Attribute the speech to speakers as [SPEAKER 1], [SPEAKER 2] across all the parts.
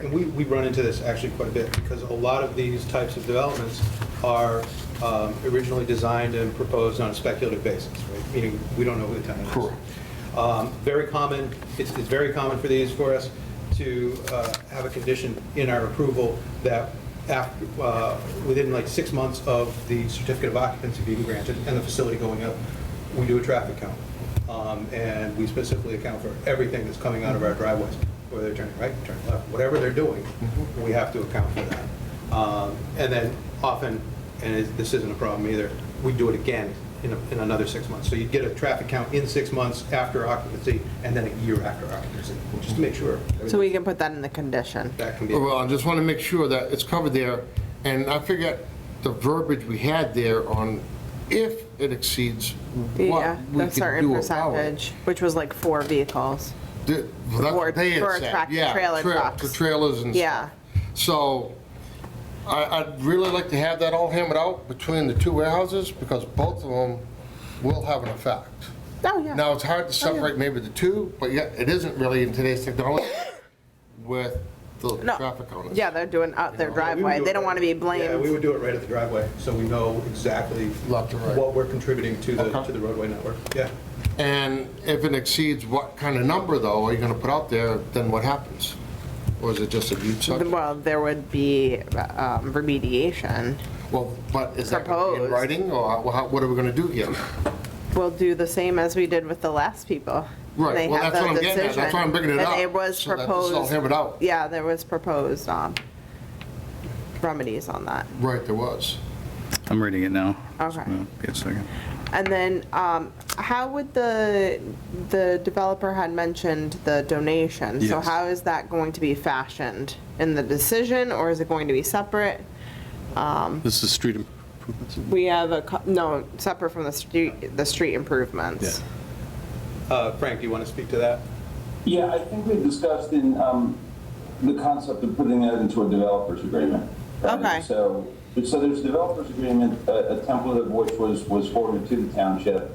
[SPEAKER 1] And we, we run into this actually quite a bit, because a lot of these types of developments are um, originally designed and proposed on a speculative basis, right? Meaning, we don't know who the tenant is.
[SPEAKER 2] Correct.
[SPEAKER 1] Um, Very common, it's, it's very common for these, for us to uh, have a condition in our approval that after, within like six months of the certificate of occupancy being granted and the facility going up, we do a traffic count. Um, And we specifically account for everything that's coming out of our driveways, whether they're turning right, turning left, whatever they're doing,
[SPEAKER 2] Mm-hmm.
[SPEAKER 1] we have to account for that. Um, And then often, and it- this isn't a problem either, we do it again in, a- in another six months. So you'd get a traffic count in six months after occupancy, and then a year after occupancy, just to make sure.
[SPEAKER 3] So we can put that in the condition.
[SPEAKER 1] That can be,
[SPEAKER 2] Well, I just want to make sure that it's covered there, and I forget the verbiage we had there on if it exceeds what
[SPEAKER 3] Yeah,
[SPEAKER 2] we
[SPEAKER 3] the
[SPEAKER 2] can
[SPEAKER 3] certain
[SPEAKER 2] do about it.
[SPEAKER 3] percentage, which was like four vehicles.
[SPEAKER 2] The- well, that's
[SPEAKER 3] For-
[SPEAKER 2] what they had
[SPEAKER 3] for a
[SPEAKER 2] said,
[SPEAKER 3] tractor
[SPEAKER 2] yeah,
[SPEAKER 3] trailer
[SPEAKER 2] tra-
[SPEAKER 3] trucks.
[SPEAKER 2] for trailers and
[SPEAKER 3] Yeah.
[SPEAKER 2] stuff. So I, I'd really like to have that all hammered out between the two warehouses, because both of them will have an effect.
[SPEAKER 3] Oh, yeah.
[SPEAKER 2] Now, it's hard to separate maybe the two, but yeah, it isn't really in today's technology with the
[SPEAKER 3] No.
[SPEAKER 2] traffic on it.
[SPEAKER 3] Yeah, they're doing out their
[SPEAKER 1] We would
[SPEAKER 3] driveway.
[SPEAKER 1] do
[SPEAKER 3] They
[SPEAKER 1] it
[SPEAKER 3] don't
[SPEAKER 1] right-
[SPEAKER 3] want to be
[SPEAKER 1] Yeah, we
[SPEAKER 3] blamed.
[SPEAKER 1] would do it right at the driveway, so we know exactly
[SPEAKER 2] Left to right.
[SPEAKER 1] what we're contributing to the,
[SPEAKER 2] Okay.
[SPEAKER 1] to the roadway network. Yeah.
[SPEAKER 2] And if it exceeds what kind of number, though, are you going to put out there, then what happens? Or is it just a huge subject?
[SPEAKER 3] Well, there would be um, remediation.
[SPEAKER 2] Well, but is that gonna be in
[SPEAKER 3] Proposed.
[SPEAKER 2] writing, or how- what are we going to do here?
[SPEAKER 3] We'll do the same as we did with the last people.
[SPEAKER 2] Right,
[SPEAKER 3] They
[SPEAKER 2] well,
[SPEAKER 3] have
[SPEAKER 2] that's
[SPEAKER 3] the
[SPEAKER 2] what I'm getting at. That's
[SPEAKER 3] decision.
[SPEAKER 2] why I'm bringing it up,
[SPEAKER 3] And it was
[SPEAKER 2] so that this all
[SPEAKER 3] proposed.
[SPEAKER 2] hammered out.
[SPEAKER 3] Yeah, there was proposed um, remedies on that.
[SPEAKER 2] Right, there was.
[SPEAKER 4] I'm reading it now.
[SPEAKER 3] Okay.
[SPEAKER 4] Give me a second.
[SPEAKER 3] And then, um, how would the, the developer had mentioned the donation? So
[SPEAKER 4] Yes.
[SPEAKER 3] how is that going to be fashioned? In the decision, or is it going to be separate? Um,
[SPEAKER 4] This is street improvements.
[SPEAKER 3] We have a, co- no, separate from the street, the street improvements.
[SPEAKER 1] Uh, Frank, do you want to speak to that?
[SPEAKER 5] Yeah, I think we discussed in, um, the concept of putting that into a developer's agreement. right?
[SPEAKER 3] Okay.
[SPEAKER 5] So, so there's developer's agreement, a, a template of which was, was forwarded to the township.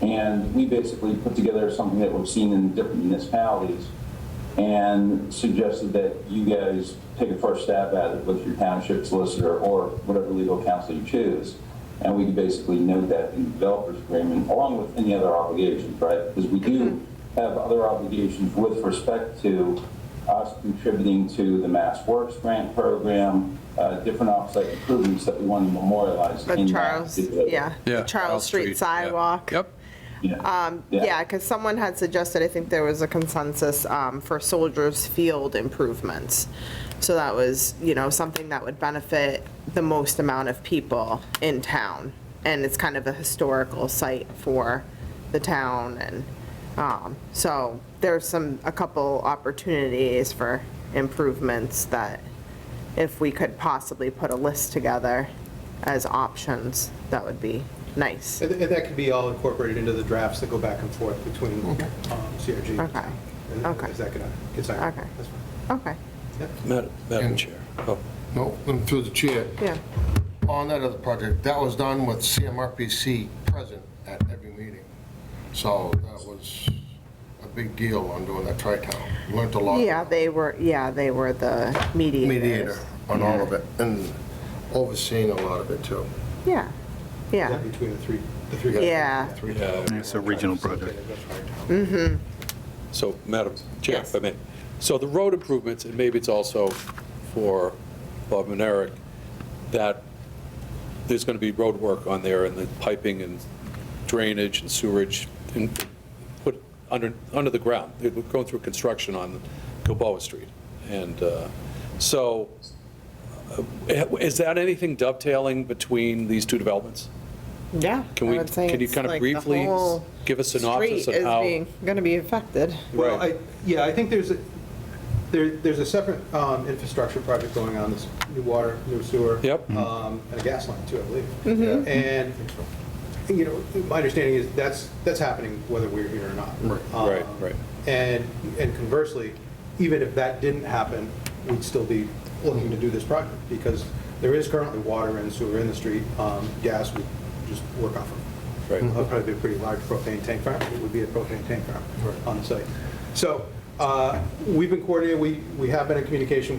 [SPEAKER 5] And we basically put together something that we've seen in different municipalities and suggested that you guys take a first stab at it with your township solicitor or whatever legal counsel you choose. And we can basically note that in the developer's agreement, along with any other obligations, right? Because we do
[SPEAKER 3] Mm-hmm.
[SPEAKER 5] have other obligations with respect to us contributing to the Mass Works Grant Program, uh, different offsite improvements that we want to memorialize.
[SPEAKER 3] The
[SPEAKER 5] in that
[SPEAKER 3] Charles,
[SPEAKER 5] particular-
[SPEAKER 3] yeah. the Charles Street sidewalk.
[SPEAKER 4] Yep.
[SPEAKER 5] Yeah.
[SPEAKER 3] Um, Yeah, because someone had suggested, I think there was a consensus um, for Soldiers Field improvements. So that was, you know, something that would benefit the most amount of people in town. And it's kind of a historical site for the town and, um, so there's some, a couple opportunities for improvements that if we could possibly put a list together as options, that would be nice.
[SPEAKER 1] And and that could be all incorporated into the drafts that go back and forth between um, CRG.
[SPEAKER 3] Okay.
[SPEAKER 1] And
[SPEAKER 3] Okay.
[SPEAKER 1] Is that going to get signed?
[SPEAKER 3] Okay.
[SPEAKER 1] That's fine.
[SPEAKER 3] Okay,
[SPEAKER 6] Madam Madam Chair. Oh,
[SPEAKER 2] No, and through the chair.
[SPEAKER 3] yeah.
[SPEAKER 2] On that other project, that was done with CMRPC present at every meeting. So that was a big deal on doing that tri-town. Learned a lot.
[SPEAKER 3] Yeah, they were, yeah, they were the mediators.
[SPEAKER 2] Mediator on all of it, and overseeing a lot of it, too.
[SPEAKER 3] Yeah, yeah.
[SPEAKER 1] Between the three, the three.
[SPEAKER 3] Yeah. Mm.
[SPEAKER 2] Three
[SPEAKER 6] Yeah.
[SPEAKER 4] It's a regional project.
[SPEAKER 6] So, Madam Chair,
[SPEAKER 3] Yes.
[SPEAKER 6] if I may. So the road improvements, and maybe it's also for Bob and Eric, that there's going to be road work on there and the piping and drainage and sewerage and put under, under the ground. They're going through construction on Gilboa Street. And uh, so uh, is that anything dovetailing between these two developments?
[SPEAKER 3] Yeah.
[SPEAKER 6] Can
[SPEAKER 3] I
[SPEAKER 6] we-
[SPEAKER 3] would say
[SPEAKER 6] can you
[SPEAKER 3] it's
[SPEAKER 6] kind of
[SPEAKER 3] like the
[SPEAKER 6] briefly s-
[SPEAKER 3] whole
[SPEAKER 6] give a synopsis
[SPEAKER 3] street
[SPEAKER 6] of how-
[SPEAKER 3] is being, going to be affected.
[SPEAKER 1] Well,
[SPEAKER 6] Right.
[SPEAKER 1] I, yeah, I think there's, a there, there's a separate um, infrastructure project going on, this new water, new sewer.
[SPEAKER 6] Yep.
[SPEAKER 1] um, And a gas line too, I
[SPEAKER 3] Mm-hmm.
[SPEAKER 1] believe. And, you know, my understanding is that's, that's happening whether we're here or not. Um,
[SPEAKER 6] Right, right.
[SPEAKER 1] And, and conversely, even if that didn't happen, we'd still be looking to do this project because there is currently water and sewer in the street. Um, Gas, we just work off of.
[SPEAKER 6] Right.
[SPEAKER 1] Uh, Probably be a pretty large propane tank farm. It would be a propane tank farm on the site. So uh, we've been coordinated, we, we have been in communication